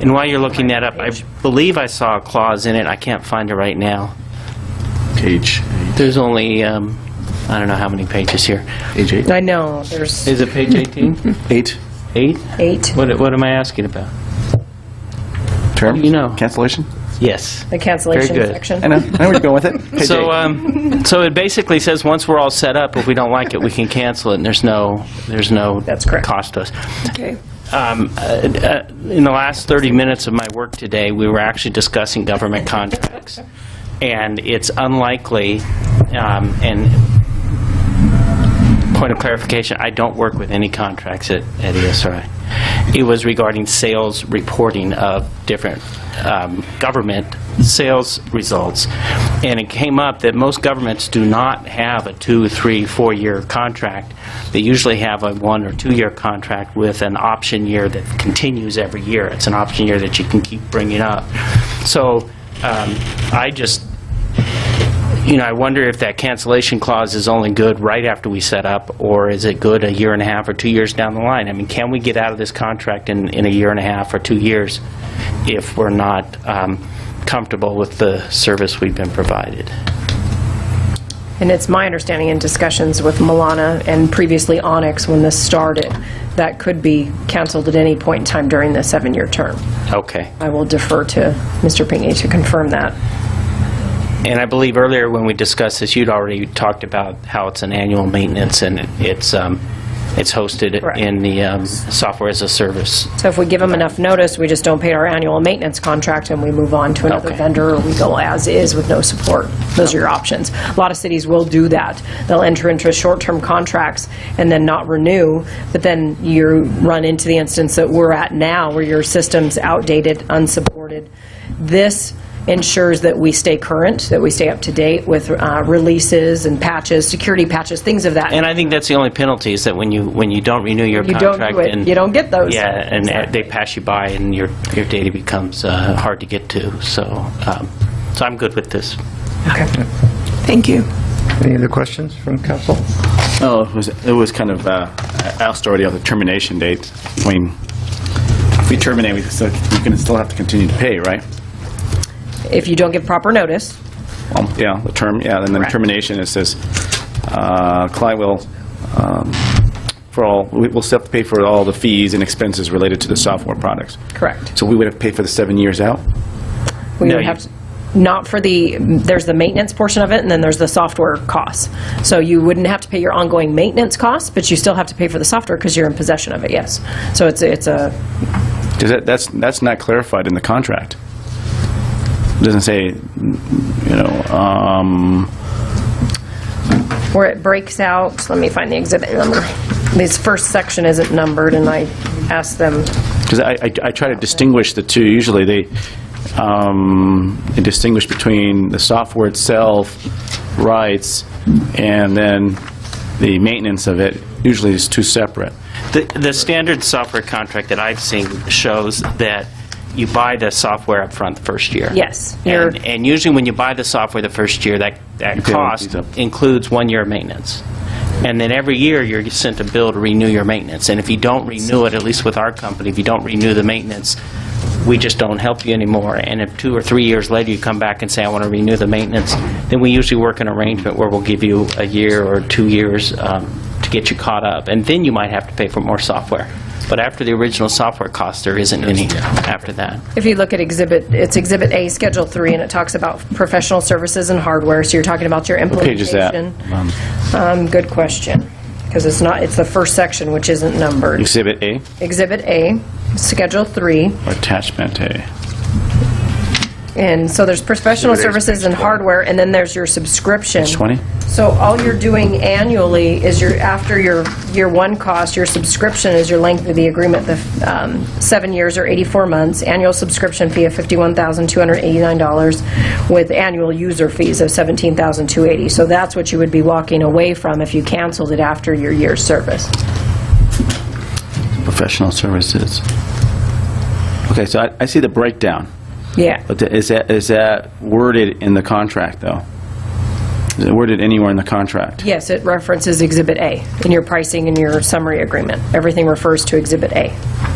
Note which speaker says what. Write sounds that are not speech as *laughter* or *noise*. Speaker 1: And while you're looking that up, I believe I saw a clause in it, I can't find it right now.
Speaker 2: Page,
Speaker 1: There's only, um, I don't know how many pages here.
Speaker 2: page eight.
Speaker 3: I know, there's
Speaker 1: Is it page *laughs* 18?
Speaker 2: Eight,
Speaker 1: 8?
Speaker 3: eight,
Speaker 1: What what am I asking about?
Speaker 2: term?
Speaker 1: You know.
Speaker 2: Cancellation?
Speaker 1: Yes.
Speaker 3: the cancellation
Speaker 1: Very good. uh,
Speaker 2: I
Speaker 3: section.
Speaker 2: know, I know where you're going
Speaker 1: *laughs*
Speaker 2: with it. Page
Speaker 1: So,
Speaker 2: eight.
Speaker 1: um, so it basically says, once we're all set up, if we don't like it, we can cancel it, and there's no, there's no
Speaker 3: That's correct.
Speaker 1: cost to us.
Speaker 3: Okay.
Speaker 1: Um, uh, uh, In the last 30 minutes of my work today, we were actually discussing government contracts, and it's unlikely, um, and point of clarification, I don't work with any contracts at at E ESRI. It was regarding sales reporting of different um, government sales results. And it came up that most governments do not have a two, three, four-year contract. They usually have a one or two-year contract with an option year that continues every year. It's an option year that you can keep bringing up. So um, I just you know, I wonder if that cancellation clause is only good right after we set up, or is it good a year and a half or two years down the line? I mean, can we get out of this contract in, in a year and a half or two years if we're not um, comfortable with the service we've been provided?
Speaker 3: And it's my understanding in discussions with Milana and previously Onyx, when this started, that could be canceled at any point in time during the seven-year term.
Speaker 1: Okay.
Speaker 3: I will defer to Mr. Pinckney to confirm that.
Speaker 1: And I believe earlier when we discussed this, you'd already talked about how it's an annual maintenance and it's, um, it's hosted
Speaker 3: Correct.
Speaker 1: in the um, software as a service.
Speaker 3: So if we give them enough notice, we just don't pay our annual maintenance contract and we move on to another
Speaker 1: Okay.
Speaker 3: vendor, or we go as is with no support. Those are your options. A lot of cities will do that. They'll enter into short-term contracts and then not renew, but then you run into the instance that we're at now, where your system's outdated, unsupported. This ensures that we stay current, that we stay up to date with uh, releases and patches, security patches, things of that.
Speaker 1: And I think that's the only penalty is that when you, when you don't renew your
Speaker 3: You don't
Speaker 1: contract.
Speaker 3: do it,
Speaker 1: and-
Speaker 3: you don't get those.
Speaker 1: Yeah, and uh, they pass you by, and your, your data becomes uh, hard to get to, so, um, so I'm good with this.
Speaker 4: Thank you.
Speaker 5: Any other questions from council?
Speaker 2: Oh, it was, it was kind of, uh, asked already on the termination date. I mean, if we terminate, we still, we can still have to continue to pay, right?
Speaker 3: If you don't give proper notice,
Speaker 2: Um, Yeah, the term, yeah, and then termination, it says, uh, client will, um, for all, we- we'll still have to pay for all the fees and expenses related to the software products.
Speaker 3: Correct.
Speaker 2: So we would have paid for the seven years out?
Speaker 3: We
Speaker 1: No,
Speaker 3: would
Speaker 1: you-
Speaker 3: have, to- not for the, there's the maintenance portion of it, and then there's the software costs. So you wouldn't have to pay your ongoing maintenance costs, but you still have to pay for the software because you're in possession of it, yes. So it's, a- it's a,
Speaker 2: Does that, that's, that's not clarified in the contract. It Doesn't say, you know, um,
Speaker 3: where it breaks out, let me find the exhibit number. This first section isn't numbered, and I asked them,
Speaker 2: Because I, I I try to distinguish the two, usually they, um, they distinguish between the software itself, rights, and then the maintenance of it, usually it's two separate.
Speaker 1: The, the standard software contract that I've seen shows that you buy the software upfront the first year.
Speaker 3: Yes, you're-
Speaker 1: And and usually when you buy the software the first year, that, that
Speaker 2: pay all the
Speaker 1: cost
Speaker 2: fees up.
Speaker 1: includes one year of maintenance. And then every year, you're sent a bill to renew your maintenance. And if you don't renew it, at least with our company, if you don't renew the maintenance, we just don't help you anymore. And if two or three years later, you come back and say, I want to renew the maintenance, then we usually work an arrangement where we'll give you a year or two years um, to get you caught up. And then you might have to pay for more software. But after the original software cost, there isn't any after that.
Speaker 3: if you look at exhibit, it's Exhibit A, Schedule 3, and it talks about professional services and hardware, so you're talking about your
Speaker 2: What page is
Speaker 3: implementation.
Speaker 2: that? Um,
Speaker 3: Um, Good question, because it's not, it's the first section, which isn't numbered.
Speaker 2: Exhibit A,
Speaker 3: Exhibit A, Schedule 3,
Speaker 2: or attachment A.
Speaker 3: and so there's professional
Speaker 2: Exhibit A is
Speaker 3: services and
Speaker 2: page 20.
Speaker 3: hardware, and then there's your subscription.
Speaker 2: Page 20?
Speaker 3: So all you're doing annually is your, after your year one cost, your subscription is your length of the agreement, the um, seven years or 84 months, annual subscription fee of $51,289 with annual user fees of $17,280. So that's what you would be walking away from if you canceled it after your year's service.
Speaker 2: Professional services. Okay, so I, I see the breakdown,
Speaker 3: Yeah.
Speaker 2: but the- is that, is that worded in the contract, though? Is it worded anywhere in the contract?
Speaker 3: Yes, it references Exhibit A in your pricing and your summary agreement. Everything refers to Exhibit A.